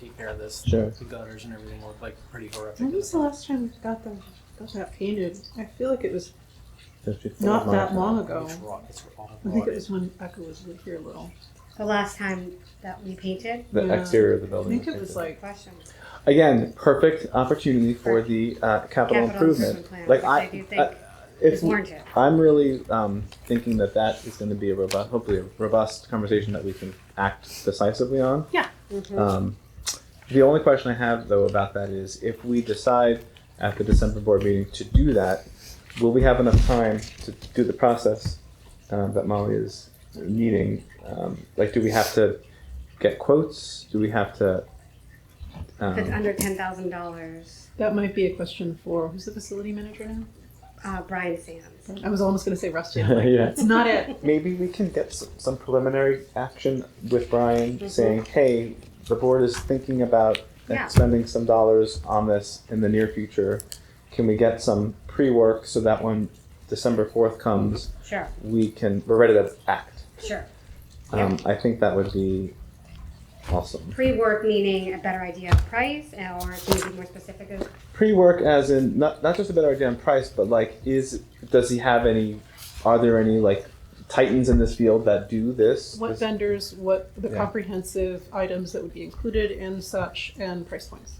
take care of this. Sure. The gutters and everything look like pretty horrific. When was the last time we got them got that painted? I feel like it was Just before not my that time. long ago. It's rot, it's all I think it rotted. was when Becca was here a little. The last time that we painted? The Yeah. exterior of the I building. think it was like Question. again, perfect opportunity for the uh, capital, improvement. plan, Like which I, do I- think it's is warranted. I'm really um, thinking that that is going to be a robust, hopefully a robust conversation that we can act decisively on. Mhm. Um, the only question I have though about that is if we decide at the December board meeting to do that, will we have enough time to do the process um, that Molly is needing? Um, like, do we have to get quotes? Do we have to? If it's Um, under ten thousand dollars, that might be a question for who's the facility manager now? uh, Brian Sands. I was almost gonna say Rusty. I'm like, yeah. It's not it. Maybe we can get some, some preliminary action with Brian saying, hey, the board is thinking about Mm-hmm. Yeah. spending some dollars on this in the near future. Can we get some pre work so that when December 4th comes, Sure, we can, we're ready to act? sure. Um, I think that would be awesome. Pre-work meaning a better idea of price, uh, or can you be more specific? of- Pre work, as in not, not just a better idea on price, but like, is does he have any, are there any like titans in this field that do this? What This- vendors, what the Yeah. comprehensive items that would be included and such and price points.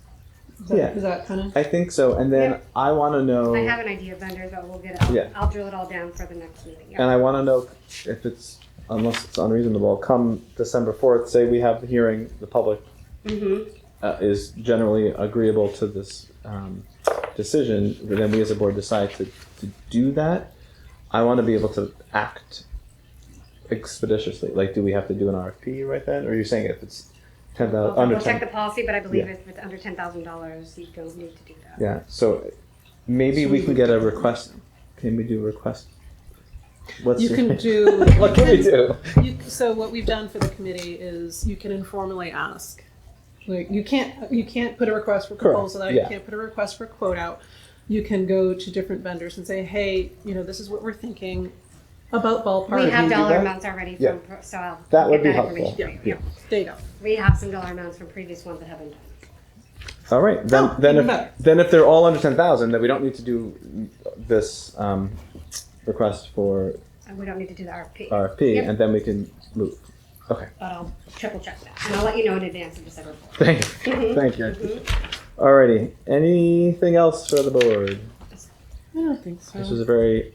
Is that, Yeah. is that kinda I think so. And then Yeah. I want to know. I have an idea of vendors, but we'll get it, Um, Yeah. I'll- I'll drill it all down for the next meeting. And Yeah. I want to know if it's, unless it's unreasonable, come December 4th, say we have the hearing, the public Mhm. uh, is generally agreeable to this um, decision, then we as a board decide to, to do that. I want to be able to act expeditiously. Like, do we have to do an RFP right then? Or you're saying if it's 10,000, We'll under we'll check 10? the policy, but I believe Yeah. if it's under ten thousand dollars, you don't need to do that. Yeah, so maybe we can get a request. Can we do a request? What's You the- can do- what can we do? You, so what we've done for the committee is you can informally ask. Like you can't you can't put a request for Correct, proposal out. yeah. You can't put a request for quote out. You can go to different vendors and say, hey, you know, this is what we're thinking about ballpark. We have do dollar that? amounts already Yeah. from, pro- so I'll. That would get be information helpful. for you. Yeah. there you go. We have some dollar amounts from previous ones that haven't done. All right, then, Oh, then even if better. then if they're all under ten thousand, then we don't need to do this um, request for And Uh, we don't need to do the RFP, but RFP, Yep. and then we can move. Okay, I'll triple check that. And I'll let you know in advance of December fourth. thank, Mhm. thank you. Alrighty, anything else for the board? I don't think so. This was a very.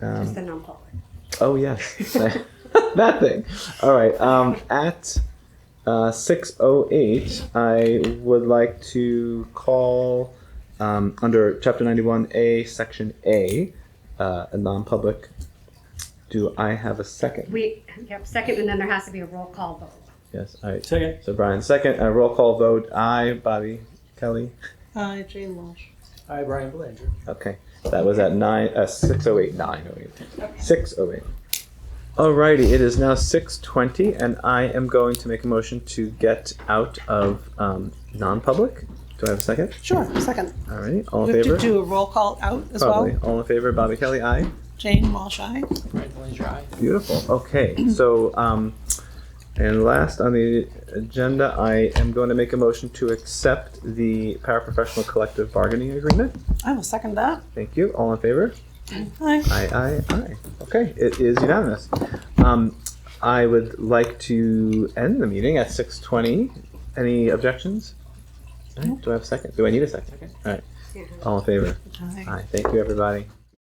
Just Um, the non-public. oh yes, that thing. All right, um, at uh, six oh eight, I would like to call um, under Chapter ninety one A, Section A, uh, a non public. Do I have a second? We, yep, second, and then there has to be a roll call vote. yes. All right. Second. So Brian, second. A roll call vote. Aye. Bobby Kelly. Hi, Uh, Jane Walsh. Hi, Brian Belanger. Okay, that was at nine, uh, six oh eight, nine oh eight, six oh eight. Alrighty, it is now six twenty, and I am going to make a motion to get out of, um, non-public. Do I have a second? Sure, second. Alrighty, all We in have to favor? do a roll call out as Probably, well. all in favor, Bobby Kelly, aye. Jane Walsh, aye. Brian Belanger, aye. Beautiful, okay, so, um, and last on the agenda, I am going to make a motion to accept the paraprofessional collective bargaining agreement. I will second that. Thank you, all in favor? Hi. Aye, aye, aye. Okay, it is unanimous. Um, I would like to end the meeting at six twenty. Any objections? All right, Do I have a second? Do I need a second? All right, all in favor? Hi. Aye, thank you, everybody.